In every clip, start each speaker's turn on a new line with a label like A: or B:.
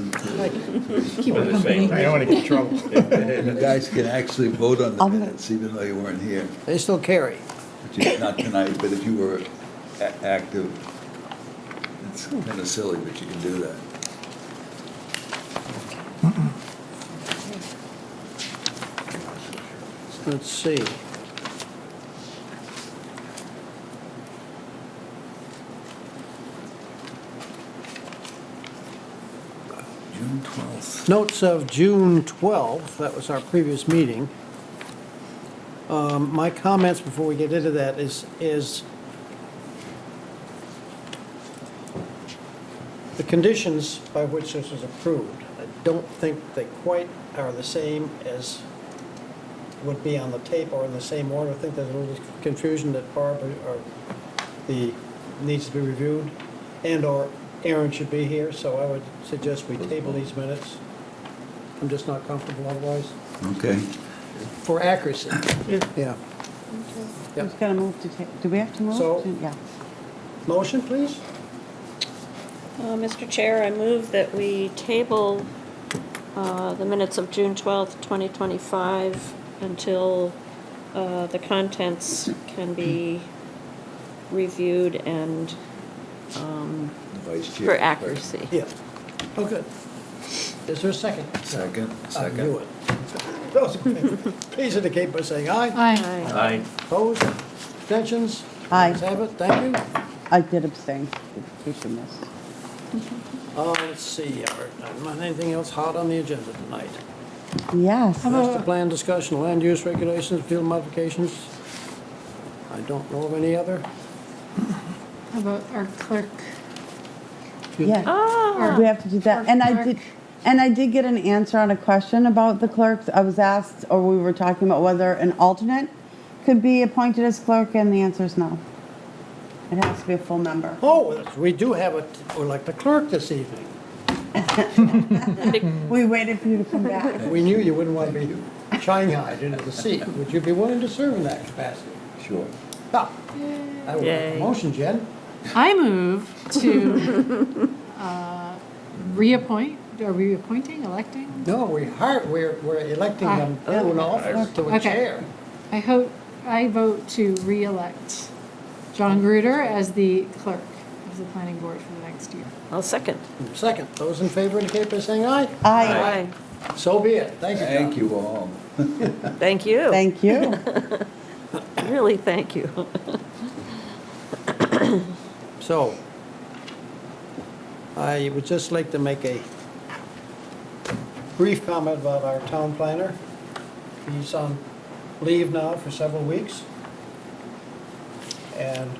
A: good. Keep her
B: Only the same,
A: company.
B: right?
C: I don't want to get in trouble.
D: You guys can actually vote on the
E: I'm-
D: minutes, even though you weren't here,
E: They still carry.
D: which is not tonight, but if you were a- active, it's kind of silly, but you can do that.
E: Let's see.
D: June twelfth.
E: Notes of June 12th, that was our previous meeting. Um, My comments before we get into that is, is the conditions by which this was approved, I don't think they quite are the same as would be on the tape or in the same order. I think there's a little confusion that Barb or or the, needs to be reviewed, and/or Aaron should be here, so I would suggest we table these minutes. I'm just not comfortable otherwise,
D: Okay.
E: for accuracy.
A: Yeah.
E: Yeah.
F: Who's gonna move to, ta- do we have to move?
E: So-
F: to- Yeah.
E: Motion, please?
A: Uh, Mr. Chair, I move that we table uh, the minutes of June 12th, 2025, until uh, the contents can be reviewed and
D: The vice chair.
A: for accuracy.
E: Yeah. Oh, good. Is there a second?
D: Second,
E: I
D: second.
E: knew it. Those in favor, Please indicate by saying aye.
A: Aye.
B: Aye.
E: Opposed? Abstentions?
F: Aye.
E: Ayes have it, thank you.
F: I did abstain, in case you missed.
E: Uh, Let's see, Art, not anything else hot on the agenda tonight?
F: Yes.
E: Master plan discussion, land use regulations, field modifications. I don't know of any other.
G: How about our clerk?
F: Yeah, we have to do that. And I did, and I did get an answer on a question about the clerks. I was asked, or we were talking about whether an alternate could be appointed as clerk, and the answer is no. It has to be a full member.
E: Oh, we do have a, we like the clerk this evening.
F: We waited for you to come back.
E: We knew you wouldn't want to be shanghaied into the seat. Would you be willing to serve in that capacity?
D: Sure.
E: Ah, I would make a
A: Yay.
E: motion, Jen.
G: I move to uh, reappoint, are we appointing, electing?
E: No, we hire, we're, we're electing them an office to a
G: Okay.
E: chair.
G: I hope, I vote to re-elect John Gruder as the clerk of the planning board for the next year.
A: I'll second.
E: Second, those in favor indicate by saying aye.
F: Aye,
E: So be it. Thank you, John.
D: Thank you all.
A: Thank you.
F: thank you.
A: Really, thank you.
E: So, I would just like to make a brief comment about our town planner. He's on leave now for several weeks. And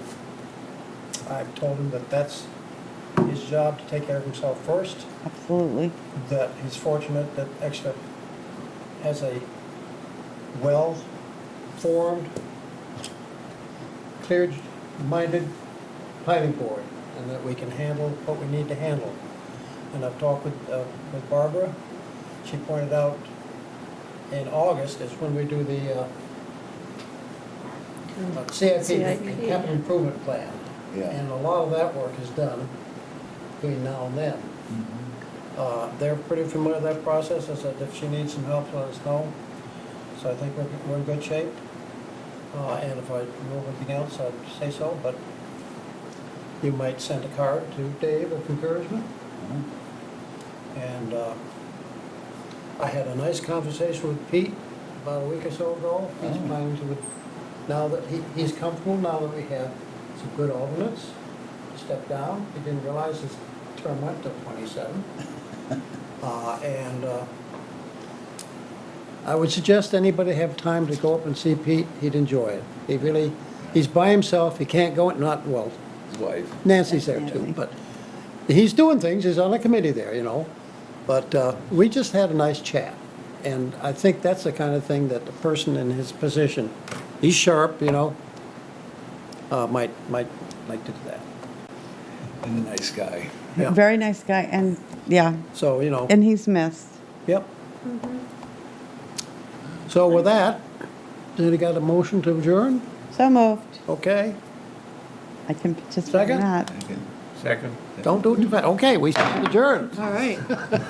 E: I've told him that that's his job to take care of himself first,
F: Absolutely.
E: that he's fortunate that Exeter has a well-formed, clear-minded planning board, and that we can handle what we need to handle. And I've talked with, uh, with Barbara, she pointed out in August is when we do the, uh,
G: Mm.
E: uh, CIP,
A: CIP.
E: capital improvement plan.
D: Yeah.
E: And a lot of that work is done between now and then. Uh, They're pretty familiar with that process, I said if she needs some help, let us know. So I think we're, we're in good shape. Uh, And if I know anything else, I'd say so, but you might send a card to Dave of encouragement. And uh, I had a nice conversation with Pete about a week or so ago. He's planning to, now that he, he's comfortable, now that we have some good alternates, step down. He didn't realize his term went to 27. Uh, And uh, I would suggest anybody have time to go up and see Pete, he'd enjoy it. He really, he's by himself, he can't go, not, well,
D: His wife.
E: Nancy's there too,
F: Nancy.
E: but he's doing things, he's on a committee there, you know. But uh, we just had a nice chat, and I think that's the kind of thing that the person in his position, he's sharp, you know, uh, might, might, might do that.
D: And a nice guy.
E: Yeah.
F: Very nice guy, and, yeah,
E: So, you know,
F: and he's missed.
E: yep. So with that, then you got a motion to adjourn?
F: So moved.
E: Okay,
F: I can participate
E: Second?
F: in that.
D: Okay.
B: Second.
E: don't do it too fast, okay, we stand adjourned.
G: All right.